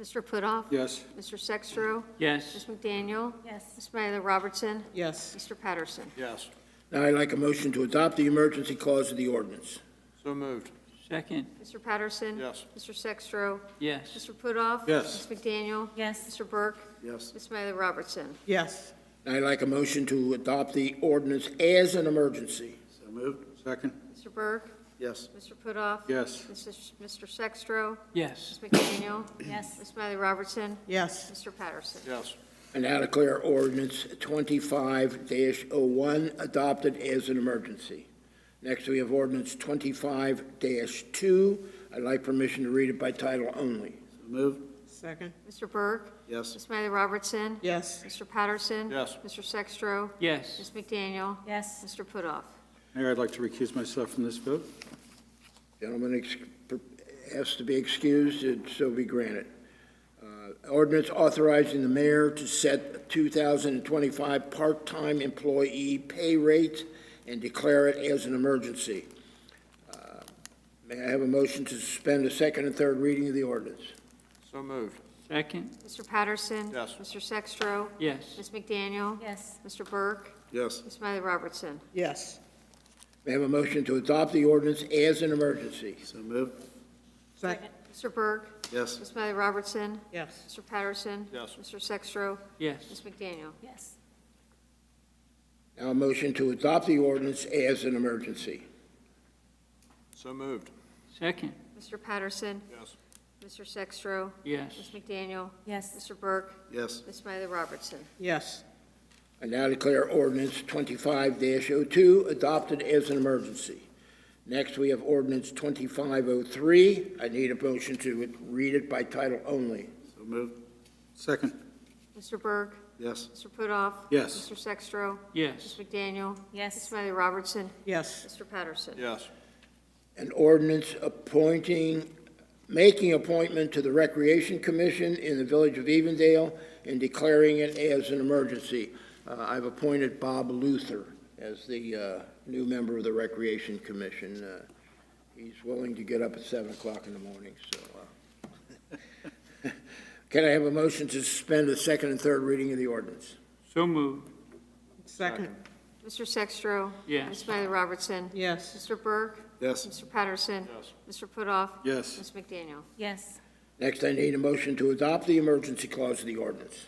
Mr. Putoff. Yes. Mr. Sextro. Ms. yes, McDaniel. yes, Ms. Myla Robertson. yes, Mr. Patterson. Yes. Now I'd like a motion to adopt the emergency clause of the ordinance. So moved. second, Mr. Patterson. Yes. Mr. Sextro. yes, Mr. Putoff. Yes. Ms. McDaniel. yes, Mr. Burke. Yes. Ms. Myla Robertson. yes, Now I'd like a motion to adopt the ordinance as an emergency. So moved. Second. Mr. Burke. Yes. Mr. Putoff. Yes. Mrs. Mr. Sextro. yes, Ms. McDaniel. yes, Ms. Myla Robertson. yes, Mr. Patterson. Yes. And now declare ordinance 25-01 adopted as an emergency. Next, we have ordinance 25-2. I'd like permission to read it by title only. Moved. second, Mr. Burke. Yes. Ms. Myla Robertson. yes, Mr. Patterson. Yes. Mr. Sextro. yes, Ms. McDaniel. yes, Mr. Putoff. Mayor, I'd like to recuse myself from this vote. Gentleman ex- per- asked to be excused, and so be granted. Uh, Ordinance authorizing the mayor to set 2025 part-time employee pay rate and declare it as an emergency. Uh, May I have a motion to suspend the second and third reading of the ordinance? So moved. second, Mr. Patterson. Yes. Mr. Sextro. yes, Ms. McDaniel. yes, Mr. Burke. Yes. Ms. Miley Robertson. yes, May I have a motion to adopt the ordinance as an emergency? So moved. second, Mr. Burke. Yes. Ms. Miley Robertson. yes, Mr. Patterson. Yes. Mr. Sextro. Ms. yes, McDaniel. yes, Now a motion to adopt the ordinance as an emergency. So moved. second, Mr. Patterson. Yes. Mr. Sextro. Ms. yes, McDaniel. yes, Mr. Burke. Yes. Ms. Miley Robertson. yes, I now declare ordinance 25-02 adopted as an emergency. Next, we have ordinance 2503. I need a motion to read it by title only. So moved. Second. Mr. Burke. Yes. Mr. Putoff. Yes. Mr. Sextro. yes, Ms. McDaniel. Ms. yes, Miley Robertson. yes, Mr. Patterson. Yes. An ordinance appointing, making appointment to the Recreation Commission in the Village of Evendale and declaring it as an emergency. Uh, I've appointed Bob Luther as the uh, new member of the Recreation Commission. Uh, He's willing to get up at 7 o'clock in the morning, so. uh, Can I have a motion to suspend the second and third reading of the ordinance? so moved, second, Mr. Sextro. yes, Ms. Miley Robertson. yes, Mr. Burke. Yes. Mr. Patterson. Yes. Mr. Putoff. Yes. Ms. McDaniel. yes, Next, I need a motion to adopt the emergency clause of the ordinance.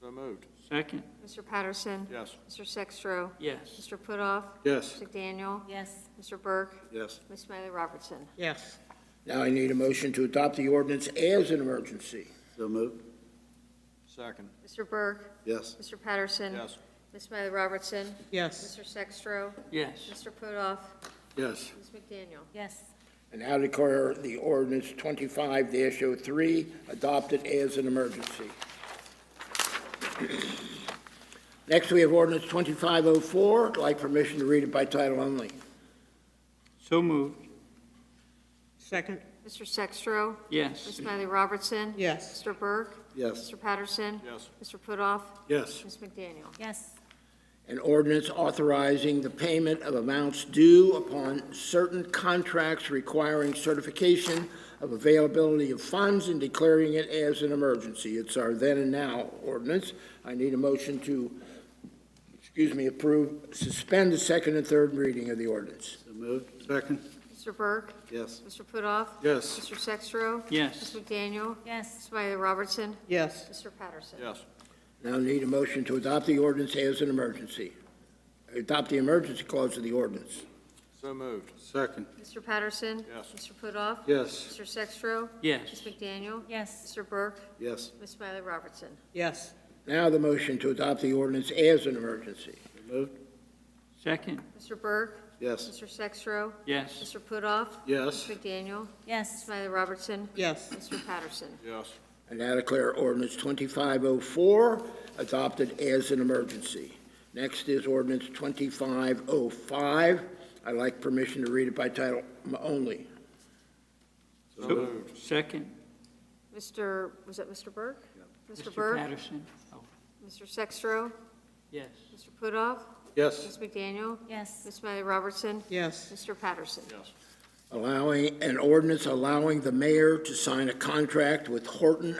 So moved. second, Mr. Patterson. Yes. Mr. Sextro. yes, Mr. Putoff. Yes. Mr. McDaniel. yes, Mr. Burke. Yes. Ms. Miley Robertson. yes, Now I need a motion to adopt the ordinance as an emergency. So moved. Second. Mr. Burke. Yes. Mr. Patterson. Yes. Ms. Miley Robertson. yes, Mr. Sextro. yes, Mr. Putoff. Yes. Ms. McDaniel. yes, And now declare the ordinance 25-03 adopted as an emergency. Next, we have ordinance 2504. I'd like permission to read it by title only. so moved, second, Mr. Sextro. yes, Ms. Miley Robertson. yes, Mr. Burke. Yes. Mr. Patterson. Yes. Mr. Putoff. Yes. Ms. McDaniel. yes, An ordinance authorizing the payment of amounts due upon certain contracts requiring certification of availability of funds and declaring it as an emergency. It's our then and now ordinance. I need a motion to, excuse me, approve, suspend the second and third reading of the ordinance. So moved. Second. Mr. Burke. Yes. Mr. Putoff. Yes. Mr. Sextro. Ms. yes, McDaniel. yes, Ms. Miley Robertson. yes, Mr. Patterson. Yes. Now need a motion to adopt the ordinance as an emergency. Adopt the emergency clause of the ordinance. So moved. Second. Mr. Patterson. Yes. Mr. Putoff. Yes. Mr. Sextro. Ms. yes, McDaniel. yes, Mr. Burke. Yes. Ms. Miley Robertson. yes, Now the motion to adopt the ordinance as an emergency. Moved. second, Mr. Burke. Yes. Mr. Sextro. yes, Mr. Putoff. Yes. Ms. McDaniel. Ms. yes, Miley Robertson. yes, Mr. Patterson. Yes. And now declare ordinance 2504 adopted as an emergency. Next is ordinance 2505. I'd like permission to read it by title only. So moved. second, Mr., was that Mr. Burke? Mr. Mr. Burke. Patterson, oh, Mr. Sextro. yes, Mr. Putoff. Yes. Ms. McDaniel. yes, Ms. Miley Robertson. yes, Mr. Patterson. Yes. allowing, an ordinance allowing the mayor to sign a contract with Horton